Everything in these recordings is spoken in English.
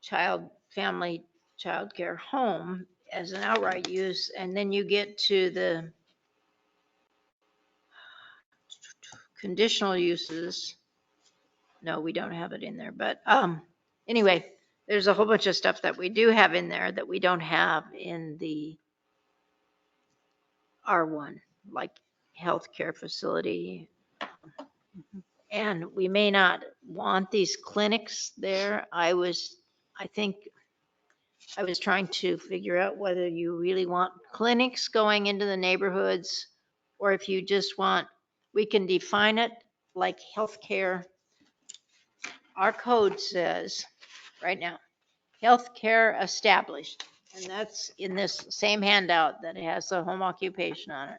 child, family childcare home as an outright use, and then you get to the conditional uses. No, we don't have it in there, but, um, anyway, there's a whole bunch of stuff that we do have in there that we don't have in the R1, like healthcare facility. And we may not want these clinics there. I was, I think, I was trying to figure out whether you really want clinics going into the neighborhoods or if you just want, we can define it like healthcare. Our code says right now, healthcare established. And that's in this same handout that has the home occupation on it.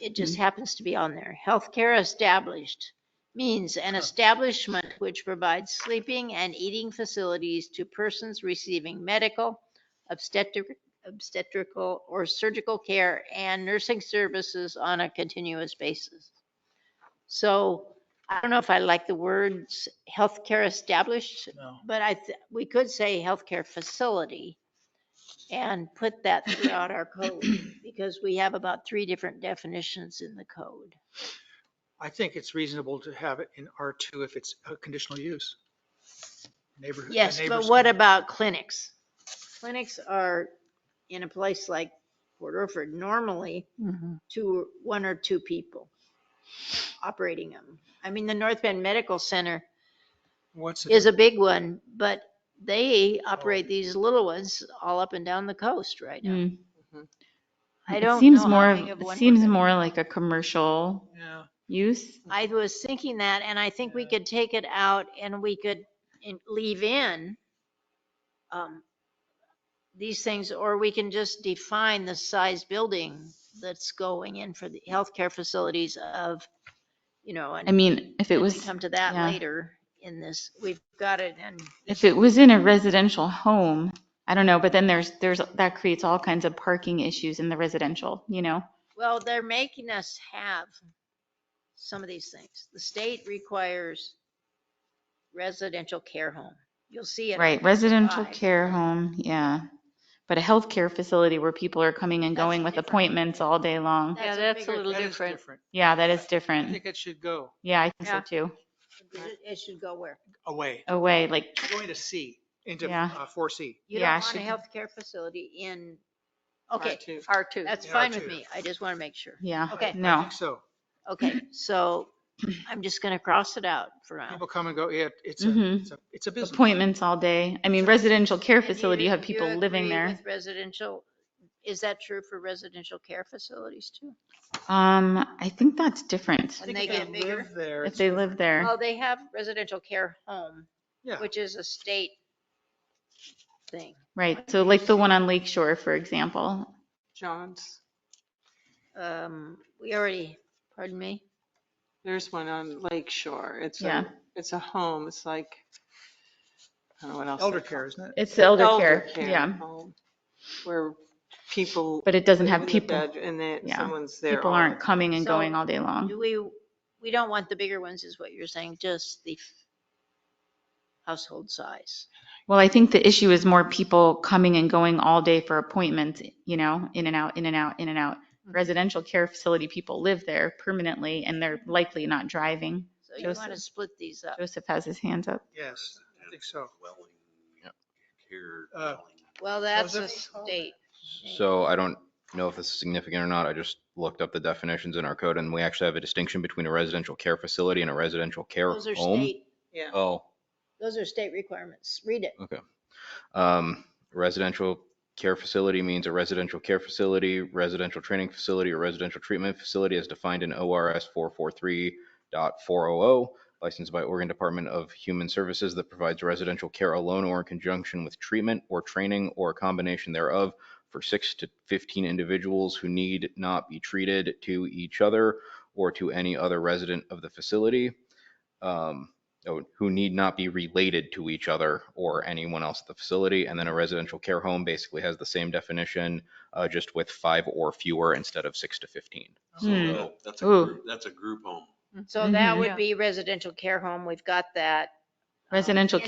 It just happens to be on there. Healthcare established means an establishment which provides sleeping and eating facilities to persons receiving medical, obstetric, obstetrical or surgical care and nursing services on a continuous basis. So I don't know if I like the words healthcare established, No. but I, th- we could say healthcare facility and put that throughout our code because we have about three different definitions in the code. I think it's reasonable to have it in R2 if it's a conditional use. Neighborhood. a Yes, but neighbor's- what about clinics? Clinics are in a place like Port Orford, normally two, one or two people operating them. I mean, the North Bend Medical Center What's the is a big one, but they Oh. operate these little ones all up and down the coast right now. Mm. Mm-hmm. I It don't know seems how more, big of one. it we're seems gonna- more like a commercial Yeah, use. I was thinking that, and I think we Yeah. could take it out and we could in- leave in um, these things, or we can just define the size building that's going in for the healthcare facilities of, you know, I and mean, if it then we was, come to that yeah. later in this. We've got it and if it was in a residential home, I don't know, but then there's, there's, that creates all kinds of parking issues in the residential, you know? Well, they're making us have some of these things. The state requires residential care home. You'll see it. Right, residential Five. care home, yeah. But a healthcare facility where people are coming and That's going with different. appointments all day long. Yeah, that's a bigger little thing. that is different. different. Yeah, that is I different. think it should go Yeah, I think so Yeah. too. It it should go where? away, Away, like, going to C, into Yeah. uh, 4C. You Yeah, don't it want a healthcare facility in, okay, R2. R2. that's Yeah, fine with R2. me. I just want to make sure. yeah, Okay. I no. think so. Okay, so I'm just going to cross it out for now. People come and go, yeah, it's a, Mm-hmm. Mhm. it's a, it's a business. Appointments all day. I mean, residential care And do facility, you have do people living agree there. with Residential, is that true for residential care facilities too? Um, I think that's different. I And think they if get bigger? live There, If it's- they live there, Well, they have residential care home, yeah, which is a state thing. right. So like the one on Lake Shore, for example. John's. Um, we already, pardon me? There's one on Lake Shore. It's a, Yeah. it's a home. It's like, I don't know what else. elder they care, call isn't it? It's it. elder care, yeah. home, Where people. But it doesn't live have in the people, bed And then yeah. someone's there. people all aren't the- coming and So, going all day long. Do we, we don't want the bigger ones is what you're saying, just the f- household size. Well, I think the issue is more people coming and going all day for appointments, you know, in and out, in and out, in and out. Residential care facility, people live there permanently and they're likely not driving. So you want to Joseph. split these up. Joseph has his hands up. Yes, I think so. Dwelling, care, Uh, dwelling. Well, that's a Joseph? state. So I don't know if this is significant or not. I just looked up the definitions in our code and we actually have a distinction between a residential care facility and a residential care Those are home. state, Yeah. Oh, those are state requirements. Read it. okay. Um, residential care facility means a residential care facility, residential training facility, or residential treatment facility as defined in ORS 443.400, licensed by Oregon Department of Human Services that provides residential care alone or in conjunction with treatment or training or a combination thereof for six to 15 individuals who need not be treated to each other or to any other resident of the facility, um, oh, who need not be related to each other or anyone else at the facility. And then a residential care home basically has the same definition, uh, just with five or fewer instead of six to 15. Hmm. So Oh, that's a, Ooh. group- that's a group home. So that Mhm. would Yeah. be residential care home. We've got that. Um, Residential